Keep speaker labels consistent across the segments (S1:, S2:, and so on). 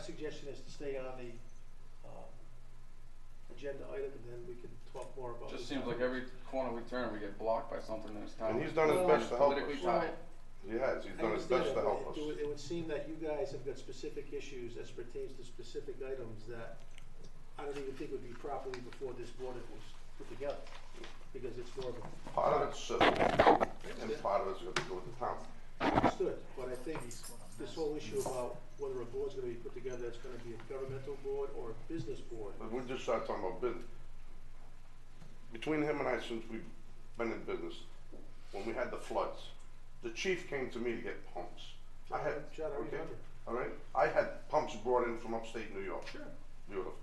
S1: suggestion is to stay on the, um, agenda item and then we can talk more about.
S2: Just
S1: it.
S2: seems like every corner we turn, we get blocked by something that's town.
S3: And he's done his
S1: Well,
S3: best to help us.
S2: Politically tied.
S3: He has, he's
S1: I
S3: done his
S1: understand
S3: best
S1: that,
S3: to
S1: but
S3: help us.
S1: It would, it would seem that you guys have got specific issues as pertains to specific items that I don't even think would be properly before this board was put together, because it's more of a,
S3: Part of it's civil, and part of it's gonna go with the town.
S1: understood, but I think this whole issue about whether a board's gonna be put together, it's gonna be a governmental board or a business board.
S3: But we just started talking about business. Between him and I, since we've been in business, when we had the floods, the chief came to me to get pumps. I had,
S1: John, I
S3: okay,
S1: remember.
S3: all right, I had pumps brought in from upstate New York. Sure. Beautiful.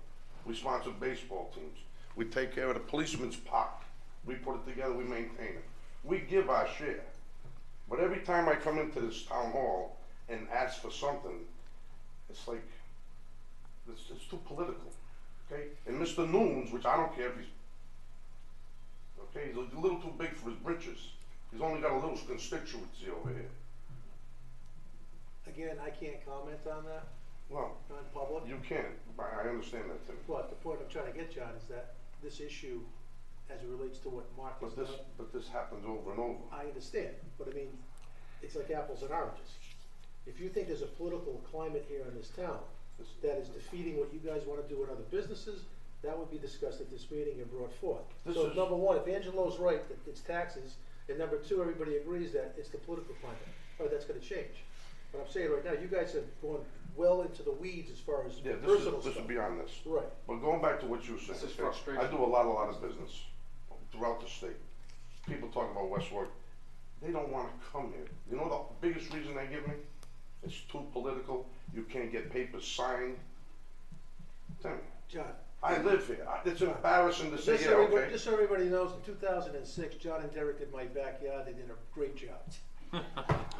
S3: We sponsored baseball teams. We take care of the policeman's park. We put it together, we maintain it. We give our share. But every time I come into this town hall and ask for something, it's like, it's, it's too political, okay? And Mr. Noons, which I don't care if he's, okay, he's a little too big for his britches. He's only got a little constituency over here.
S1: Again, I can't comment on that,
S3: Well,
S1: not in public.
S3: you can, I, I understand that, Tim.
S1: But the point I'm trying to get, John, is that this issue, as it relates to what Mark has
S3: But this,
S1: done,
S3: but this happens over and over.
S1: I understand, but I mean, it's like apples and oranges. If you think there's a political climate here in this town
S3: This-
S1: that is defeating what you guys wanna do in other businesses, that would be discussed at this meeting and brought forth.
S3: This
S1: So
S3: is-
S1: number one, if Angelo's right that it's taxes, and number two, everybody agrees that it's the political climate, or that's gonna change. But I'm saying right now, you guys have gone well into the weeds as far as
S3: Yeah, this
S1: personal
S3: is, this is
S1: stuff.
S3: beyond this.
S1: Right.
S3: But going back to what you were saying,
S2: This is
S3: okay,
S2: frustration.
S3: I do a lot, a lot of business throughout the state. People talk about West Warwick. They don't want to come here. You know the biggest reason they give me? It's too political. You can't get papers signed. Tell me,
S1: John,
S3: I live here. I- It's embarrassing to say,
S1: Just
S3: yeah,
S1: so, everybody,
S3: okay.
S1: just so everybody knows, in 2006, John and Derek did my backyard. They did a great job.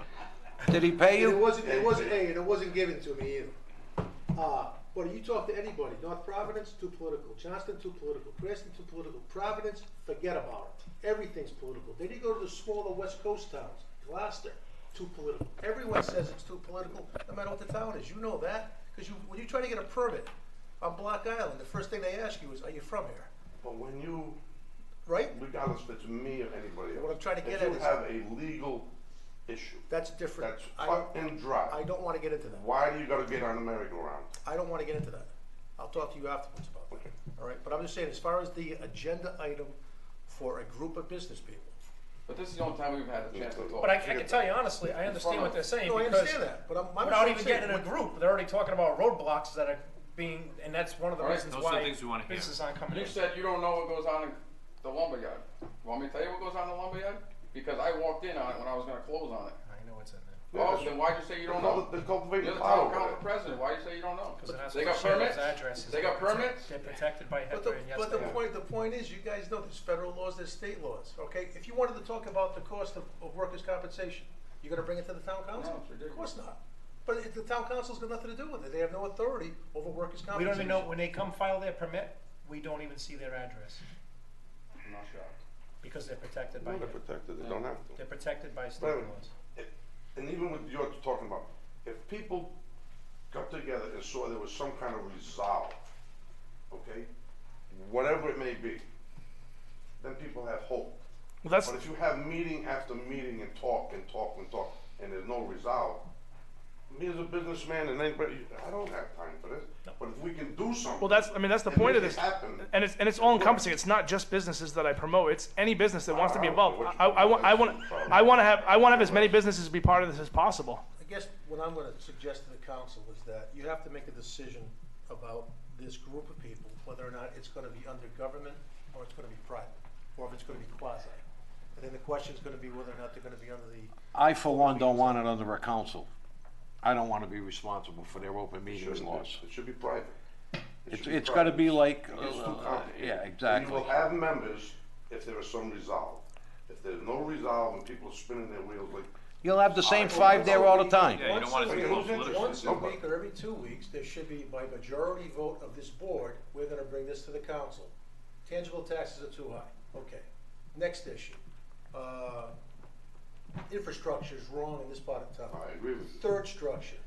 S4: Did he pay
S1: And it
S4: you?
S1: wasn't, it wasn't, hey, and it wasn't given to me either. Uh, but you talk to anybody, North Providence, too political. Johnston, too political. Cranston, too political. Providence, forget about it. Everything's political. Then you go to the smaller West Coast towns, Gloucester, too political. Everyone says it's too political, no matter what the town is. You know that, because you, when you try to get a permit on Block Island, the first thing they ask you is, are you from here?
S3: But when you,
S1: Right?
S3: regardless if it's me or anybody else.
S1: What I'm trying to get at is-
S3: If you have a legal issue
S1: That's different.
S3: that's
S1: I
S3: cut
S1: don't-
S3: and
S1: I
S3: dry,
S1: don't want to get into that.
S3: why do you gotta get on the merry-go-round?
S1: I don't want to get into that. I'll talk to you afterwards about
S3: Okay.
S1: that. All right, but I'm just saying, as far as the agenda item for a group of business people.
S2: But this is the only time we've had a chance to talk.
S5: But I, I can tell you honestly, I understand what they're saying
S1: No, I
S5: because
S1: understand that, but I'm, I'm
S5: without
S1: saying-
S5: even getting in a
S1: saying-
S5: group, they're already talking about roadblocks that are being, and that's one of the
S2: All right,
S5: reasons
S6: those are the
S5: why
S6: things we wanna hear.
S5: businesses aren't coming
S2: You
S5: in.
S2: said you don't know what goes on in the lumberyard. Want me to tell you what goes on in the lumberyard? Because I walked in on it when I was gonna close on it.
S5: I know what's in there.
S3: Yeah,
S2: Oh,
S3: that's-
S2: then why'd you say you don't
S3: They're
S2: know?
S3: cul- they're cultivating
S2: You're the
S3: power
S2: town
S3: over
S2: council
S3: there.
S2: president, why you say you don't know?
S5: Because they're not
S2: They
S5: supposed
S2: got
S5: to share those
S2: permits?
S5: addresses.
S2: They got permits?
S5: They're protected by
S1: But the,
S5: HIPAA and yes,
S1: but
S5: they
S1: the
S5: are.
S1: point, the point is, you guys know there's federal laws, there's state laws, okay? If you wanted to talk about the cost of, of workers' compensation, you gonna bring it to the town council?
S2: it's ridiculous.
S1: Of course not. But it- the town council's got nothing to do with it. They have no authority over workers' compensation.
S5: We don't even know, when they come file their permit, we don't even see their address
S2: I'm not shocked.
S5: because they're protected by,
S3: No, they're
S5: HIPAA.
S3: protected, they don't have to.
S5: they're protected by state
S3: Wait a minute.
S5: laws.
S3: And even with you're talking about, if people got together and saw there was some kind of resolve, okay, whatever it may be, then people have hope.
S6: Well, that's
S3: But if you have meeting after meeting and talk and talk and talk, and there's no resolve, me as a businessman and anybody, I don't have time for this, but if we can do something.
S6: well. That's I mean that's the
S3: and
S6: point of
S3: make
S6: this,
S3: it happen,
S6: and it's and it's all encompassing. It's not just businesses that I promote. It's any business that wants to be
S3: I don't know
S6: involved.
S3: what you
S6: I, I, want I want
S3: promote.
S6: I want to have I want to have as many businesses be part of this as possible.
S1: I guess what I'm gonna suggest to the council is that you have to make a decision about this group of people, whether or not it's gonna be under government, or it's gonna be private, or if it's gonna be quasi. And then the question's gonna be whether or not they're gonna be under the,
S7: I, for one, don't want it under a council. I don't want to be responsible for their open
S3: It
S7: meetings
S3: shouldn't
S7: laws.
S3: be, it should be private. It
S7: It's,
S3: should be
S7: it's gotta
S3: private.
S7: be like,
S3: It gets too
S7: uh,
S3: complicated.
S7: yeah,
S3: You
S7: exactly.
S3: will have members if there is some resolve. If there's no resolve and people are spinning their wheels like,
S7: You'll have the same
S3: Well,
S7: five there all the time.
S6: Yeah, you don't want it to be
S3: Once a-
S6: political.
S1: once a
S3: Okay.
S1: week or every two weeks, there should be by majority vote of this board, we're gonna bring this to the council. Tangible taxes are too high, okay. Next issue, uh, infrastructure's wrong in this part of town.
S3: I agree with you.
S1: Third structure,